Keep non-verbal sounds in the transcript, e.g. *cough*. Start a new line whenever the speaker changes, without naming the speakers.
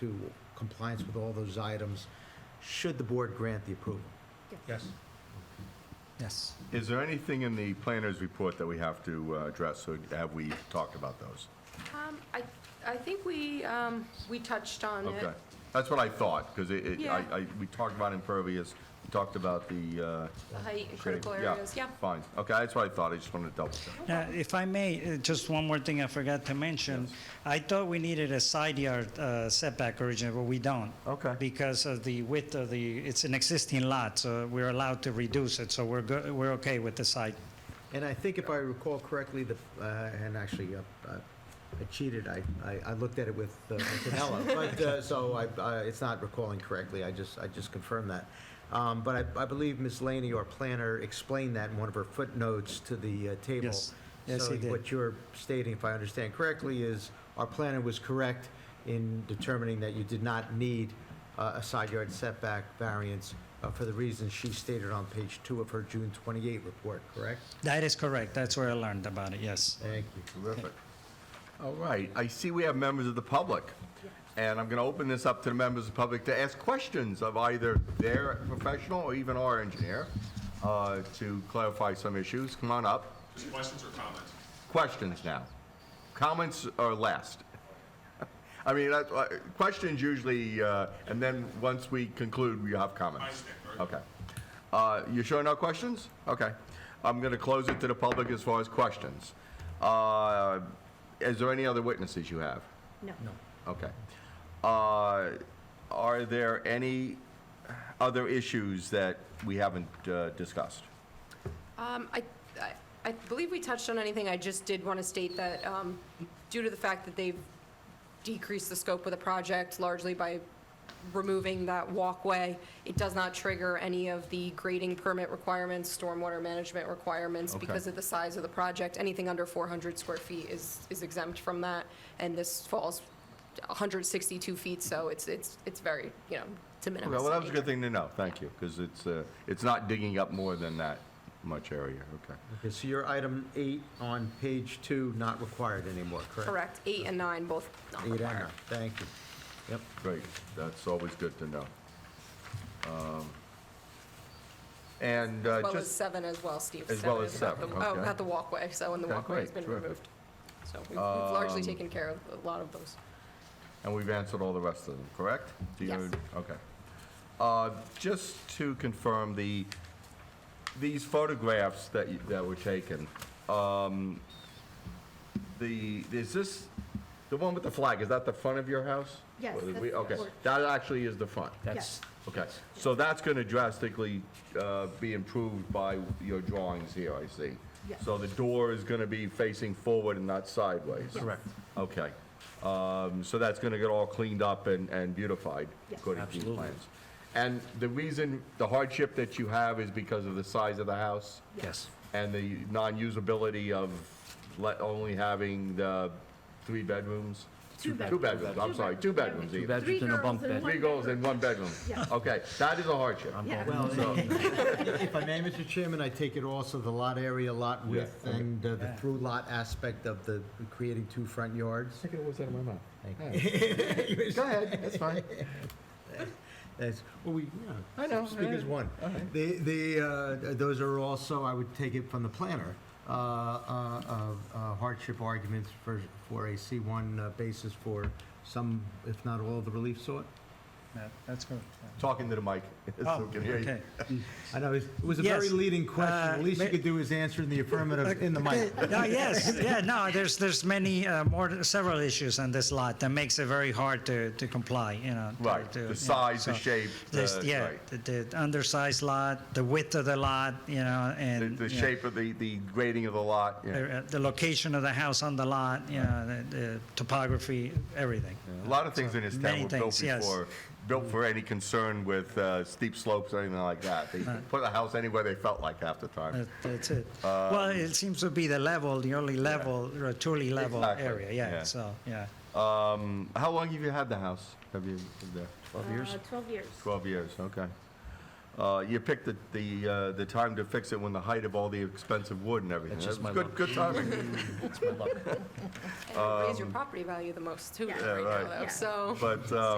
to compliance with all those items, should the board grant the approval?
Yes.
Yes.
Is there anything in the planner's report that we have to uh, address, or have we talked about those?
Um, I, I think we, um, we touched on it.
Okay, that's what I thought, because it, it-
Yeah.
I, I, we talked about impervious, we talked about the, uh...
The height and
shade.
critical areas, yeah.
Fine, okay, that's what I thought, I just wanted to double check.
Uh, If I may, uh, just one more thing I forgot to mention. I thought we needed a side yard uh, setback originally, but we don't.
Okay.
Because of the width of the, it's an existing lot, so we're allowed to reduce it, so we're good, we're okay with the side.
And I think if I recall correctly, the, uh, and actually, uh, uh, I cheated, I, I- I looked at it with uh,
*laughs*
Antonella, but, uh, so I, I- it's not recalling correctly, I just, I just confirmed that. Um, But I, I believe Ms. Laney, our planner, explained that in one of her footnotes to the uh, table.
Yes. Yes, he
So
did.
what you're stating, if I understand correctly, is our planner was correct in determining that you did not need uh, a side yard setback variance uh, for the reasons she stated on page two of her June 28 report, correct?
That is correct, that's where I learned about it, yes.
Thank you.
Terrific. All right, I see we have members of the public, and I'm gonna open this up to the members of the public to ask questions of either their professional or even our engineer, uh, to clarify some issues, come on up.
Just questions or comments?
questions now. Comments are last. I mean, that's, uh, questions usually, uh, and then once we conclude, we have comments.
I understand, all right.
Okay. Uh, You sure no questions? Okay. I'm going to close it to the public as far as questions. Uh, Is there any other witnesses you have? No. Okay. Uh, Are there any other issues that we haven't uh, discussed?
Um, I, I- I believe we touched on anything, I just did want to state that, um, due to the fact that they've decreased the scope of the project largely by removing that walkway, it does not trigger any of the grading permit requirements, stormwater management requirements,
Okay.
because of the size of the project, anything under 400 square feet is, is exempt from that, and this falls 162 feet, so it's, it's, it's very, you know, de minimis.
Okay, well, that
in
was a
nature.
good thing to know, thank you, because it's, uh, it's not digging up more than that much area, okay.
Okay, so your item eight on page two, not required anymore, correct?
Correct, eight and nine both not
Eight and
required.
nine, thank you. Yep.
Great, that's always good to know. Um, And uh,
As well as
just,
seven as well, Steve.
As well
Seven
as
is about
seven,
the- Oh,
okay.
about the walkway, so when the
Okay,
walkway has
great,
been
terrific. Um,
removed. So we've we've largely taken care of a lot of those.
and we've answered all the rest of them, correct? Do you-
Yes.
Okay. Uh, Just to confirm, the, these photographs that, you- that were taken, um, the, is this, the one with the flag, is that the front of your house?
Yes,
Or the-
that's
we-
the
Okay,
porch.
that actually is the front.
Yes.
Okay, so that's going to drastically uh, be improved by your drawings here, I see.
Yes.
So the door is going to be facing forward and not sideways?
Yes. Correct.
Okay. Um, So that's going to get all cleaned up and and beautified?
Yes.
According to your plans? And the reason, the hardship that you have is because of the size of the house?
Yes.
And the non-usability of le- only having the three bedrooms?
Two
Two
bedrooms.
bedrooms, I'm
Two
sorry, two bedrooms even.
Three
Bedrooms and a
girls
bunk
and
bed.
one
Three goals in one bedroom?
Yeah.
Okay, that is a hardship.
Yeah.
Well, if I may, Mr. Chairman, I take it also the lot area, lot width,
Yeah, okay.
and uh, the through lot aspect of the, creating two front yards.
Take it always out of my mouth.
Thank *laughs*
Go ahead, that's fine.
That's, well, we, you
I know,
Speak as
I-
one.
all right.
The, the, uh, those are also, I would take it from the planner, uh, uh, of uh, hardship arguments for, for a C1 uh, basis for some, if not all, of the relief sought.
Yeah, That's correct.
Talking to the mic. *laughs* so
Oh,
we can hear you.
okay.
I know, it was- it was a very
Yes.
leading question.
Uh,
The least you
ma-
could do is answer in the affirmative in the mic.
No, yes, yeah, no, there's, there's many, uh, more, several issues on this lot that makes it very hard to, to comply, you know. to-
Right,
to-
the
you know,
size, the
so
shape,
there's-
uh,
Yeah,
right.
the- the undersized lot, the width of the lot, you know,
The,
and.
the
you know,
shape of the, the grading of the lot, yeah.
the- The location of the house on the lot, you know, the- the topography, everything.
A lot of things in this town
Many
were built
things, yes.
before, built for any concern with uh, steep slopes or anything like that. They
Uh-huh.
put a house anywhere they felt like half the time.
That- That's it.
Um,
Well, it seems to be the level, the only level, or truly level
Exactly,
area,
yeah.
yeah, so, yeah.
Um, How long have you had the house? Have you, lived there?
Uh, Twelve years.
12 years, okay. Uh, You picked the, the, uh, the time to fix it when the height of all the expensive wood and everything.
That's just
That
my
was Good,
*laughs*
good timing.
And it raised your property value the most too
Yeah.
right now,
Yeah,
um, right.
though,
Yeah.
so.
But, uh,